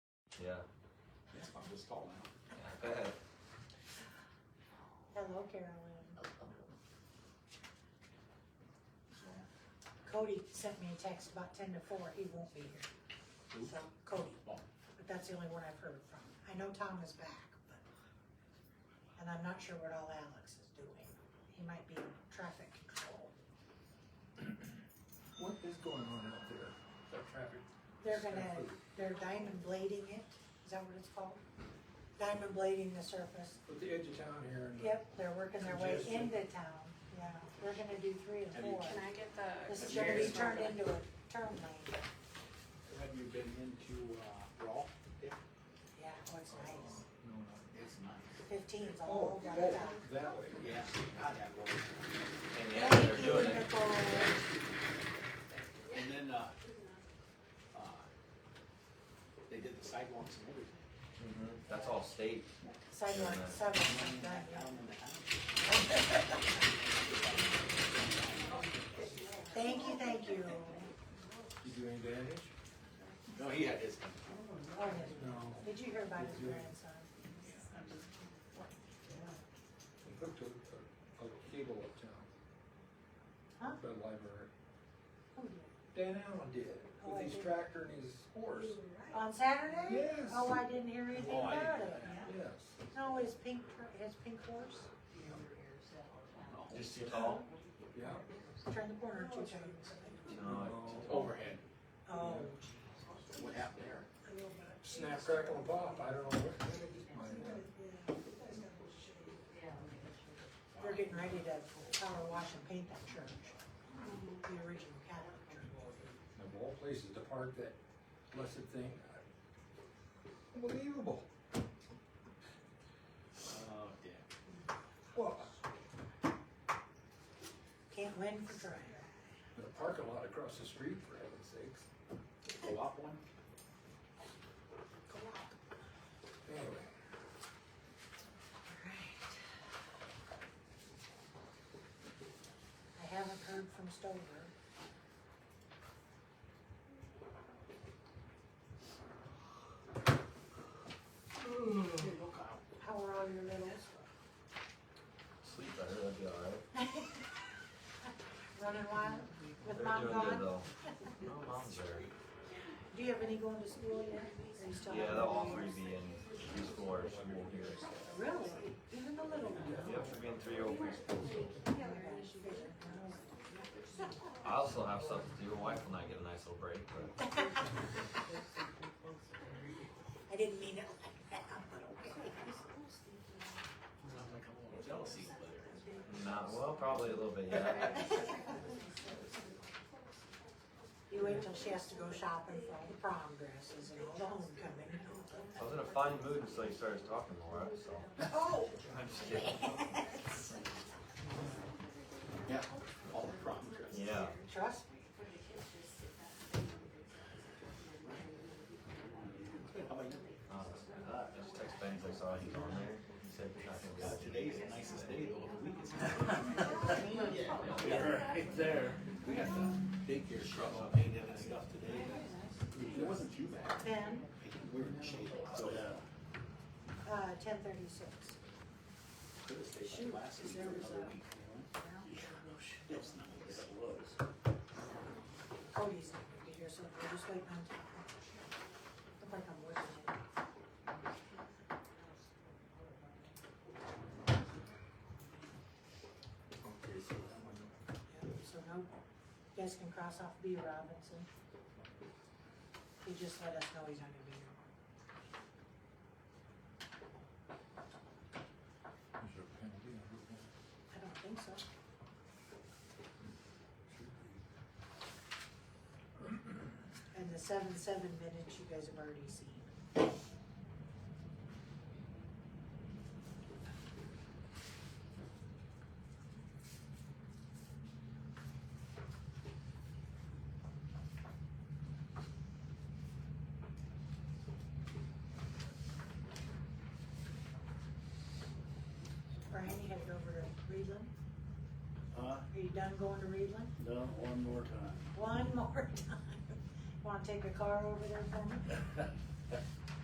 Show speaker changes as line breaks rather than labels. Yeah.
It's fine, just call now.
Go ahead.
Hello, Carolyn.
So,
Cody sent me a text about ten to four, he won't be here,
who?
so Cody,
Oh,
but that's the only one I've heard from. I know Tom is back, but, and I'm not sure what all Alex is doing. He might be in traffic control.
What is going on out there?
They're gonna, they're diamond blading it, is that what it's called? Diamond blading the surface.
At the edge of town here.
Mm-hmm.
and-
Yep, they're working their way
Congestion.
into town, yeah. We're gonna do three and
Have you-
four.
Can I get the?
This is gonna be turned into a turn lane,
Have you been into, uh, Raw? Yeah.
yeah, oh, it's nice.
No, not.
It's nice.
Fifteen's all
Oh, you
right
got it
out.
that way.
Yeah. God, that road.
And yeah,
Thank
they're
you,
doing it.
Nicole.
And then, uh, uh, they did the sidewalks and everything.
hmm That's all state.
Sidewalk
Yeah.
seven,
One in
done,
that
yeah.
town and the house.
Thank you, thank you.
You do any damage?
No, he had his.
Oh, yeah.
No.
Did you hear about his grandson?
We hooked a, a a cable uptown.
Huh?
The library.
Who did?
Dan Allen did,
Oh, I
with his
did.
tractor and his horse.
On Saturday?
Yes.
Oh, I didn't hear anything
Oh, I
about
didn't.
it.
Yes.
No, his pink, tr- his pink horse,
Just too tall.
Yeah. Um,
turn the corner two times.
No, it's-
Overhead.
Oh,
What happened there?
Snap, crackle, and pop, I don't know. what that is.
they're getting ready to power wash and paint that church, the original Catholic church.
Of all places to park that blessed thing. Unbelievable.
Oh, yeah.
Well,
Can't win for trying.
the parking lot across the street, for heaven's sakes.
Co-op one?
Anyway.
I haven't heard from Stover. How are all your littles?
Sleep better. That'd be all right.
Running wild with
They're
mom
doing good
gone?
though. No, mom's there.
Do you have any going to school yet? Are you still
Yeah,
having
they'll all
them?
three be in preschool or school here.
Really? Even the little ones?
Yep, they're being three old preschools.
Oh my gosh, you guys are grown.
I also have stuff to do. My Wife will not get a nice little break, but
I didn't mean it like that, but okay.
Sounds like a little jealousy player.
not well. Probably a little bit. Yeah.
You wait till she has to go shopping for all the prom dresses and all the homecoming. and all that.
I was in a fine mood until you started talking, Laura. So
Oh!
I'm just kidding.
Yeah. All the prom dresses.
Yeah.
Trust me.
How about you?
Uh, I just text Ben 'cause I saw he's on there. He said he's not gonna be
God,
out today.
today's the nicest day though of the week. isn't it?
Yeah, right there.
We got the daycare scrub up, painted and stuff today. It wasn't too bad.
Ben,
We were in the shade. So,
Yeah.
uh, ten thirty-six.
could have stayed
Shoot,
like last week
there
or
was
another
a-
week. you know? It's nice.
It was.
Cody's not gonna be here, so we're just waiting on Tom. Look like I'm working it.
Okay, so that one.
Yeah, So no, you guys can cross off B Robinson. He just let us know he's not gonna be here.
Is there a penalty on that one?
I don't think so.
Should be.
And the seven, seven minutes you guys have already seen. Brian, you headed over to Reedland?
Huh?
Are you done going to Reedland?
Done Uh, one more time.
One more time. Wanna take a car over there for me?